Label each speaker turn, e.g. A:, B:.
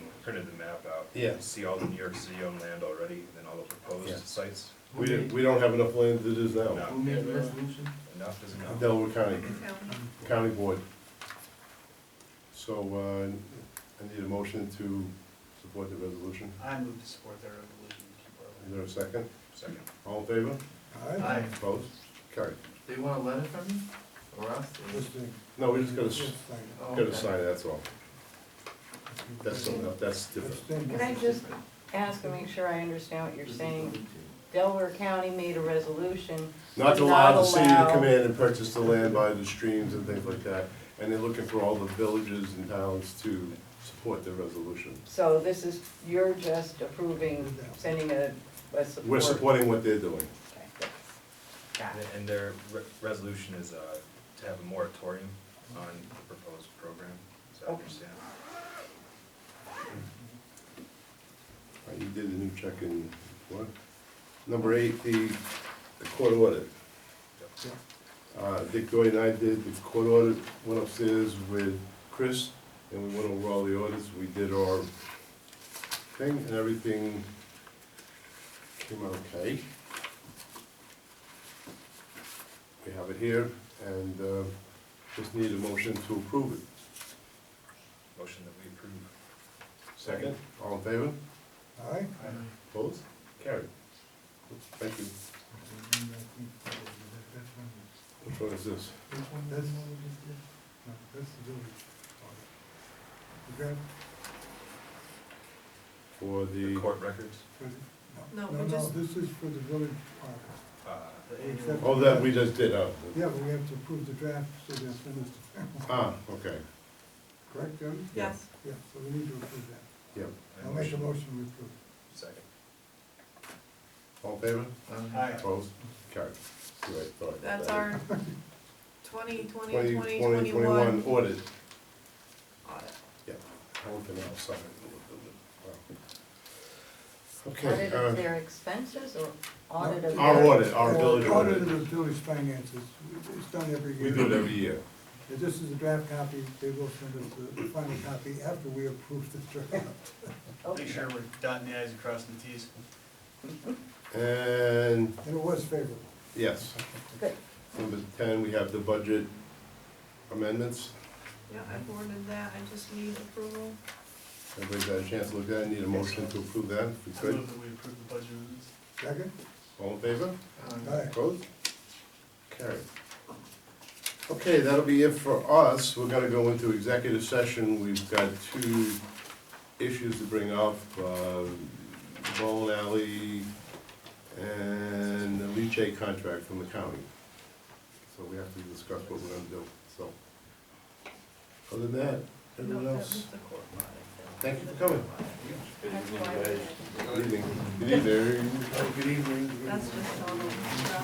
A: printed the map out.
B: Yeah.
A: See all the New York City owned land already, and all the
B: Yeah.
A: proposed sites.
B: We, didn't- we don't have enough land as it is now.
A: No.
C: Who made the resolution?
A: Enough is enough.
B: Delaware County,
D: County.
B: County Board. So, uh, I need a motion to support the resolution.
C: I move to support their resolution.
B: Is there a second?
A: Second.
B: All in favor?
C: Aye.
B: Opposed? Carried.
C: Do you want a letter from me or us?
B: No, we just gotta, s-
C: Oh,
B: gotta
C: okay.
B: sign it, that's all. That's something, else, that's different.
D: Can I just ask and make sure I understand what you're saying? Delaware County made a resolution.
B: Not to
D: to
B: allow the city to
D: allow-
B: come in and purchase the land by the streams and things like that. And they're looking for all the villages and towns to support their resolution.
D: So this is, you're just approving, sending a, a support.
B: We're supporting what they're doing.
D: Okay, good. Got
A: And-
D: it.
A: And their re- resolution is uh, to have a moratorium on the proposed program, as I
D: Okay.
A: understand.
B: All right, You did a new check in, what? Number eight, the the court audit. Uh, Dick Doy and I did the court audit, went upstairs with Chris, and we went over all the audits, we did our thing, and everything came out okay. We have it here, and uh, just need a motion to approve it.
A: Motion that we approve.
B: Second, all in favor?
E: Aye.
B: Opposed? Carried. Thank you. Which one is this?
E: Which one, that's the one we just did? No, that's the village audit. Is that
B: For the.
A: The court records,
E: for the?
D: No, we just-
E: No, this is for the village audit.
A: uh,
C: The annual-
B: Oh, that we just did, oh.
E: Yeah, but we have to approve the draft, so they'll send us, the-
B: Ah, okay,
E: correct, Jody?
B: Yes.
E: Yeah, so we need to approve that.
B: yeah.
E: I'll make a motion to approve.
A: Second.
B: All in favor?
C: Aye.
B: Opposed? Carried. Great, sorry about
F: That's
B: that.
F: our 2020,
B: 20,
F: 2021
B: 20, 21 audit,
F: audit.
B: yeah. One thing outside. Okay,
D: Audit of
B: uh,
D: their expenses or audit of their?
B: our audit, our village
E: Well, Audit of the
B: audit,
E: village finances, it's done every year.
B: we do it every year.
E: If this is a draft copy, they will send us the final copy after we approve the draft.
D: Okay.
C: we're dotting the i's and crossing the t's.
B: And,
E: And it was favorable.
B: yes,
D: Good.
B: number ten, we have the budget amendments.
F: Yeah, I forwarded that, I just need approval.
B: Everybody's had a chance to look at it, need a motion to approve that, if we could.
C: that we approve the budget amendments.
E: Second?
B: All in favor?
C: Um,
E: Aye.
B: Opposed? Carried. Okay, that'll be it for us. We're gonna go into executive session. We've got two issues to bring up. uh, Bowling Alley and the Leach contract from the county. So we have to discuss what we're gonna do, so. Other than that, everyone
F: No, that was
B: else,
F: the court audit.
B: thank you for coming.
F: That's why I did it.
B: Good evening. Good evening.
F: That's just all the stuff.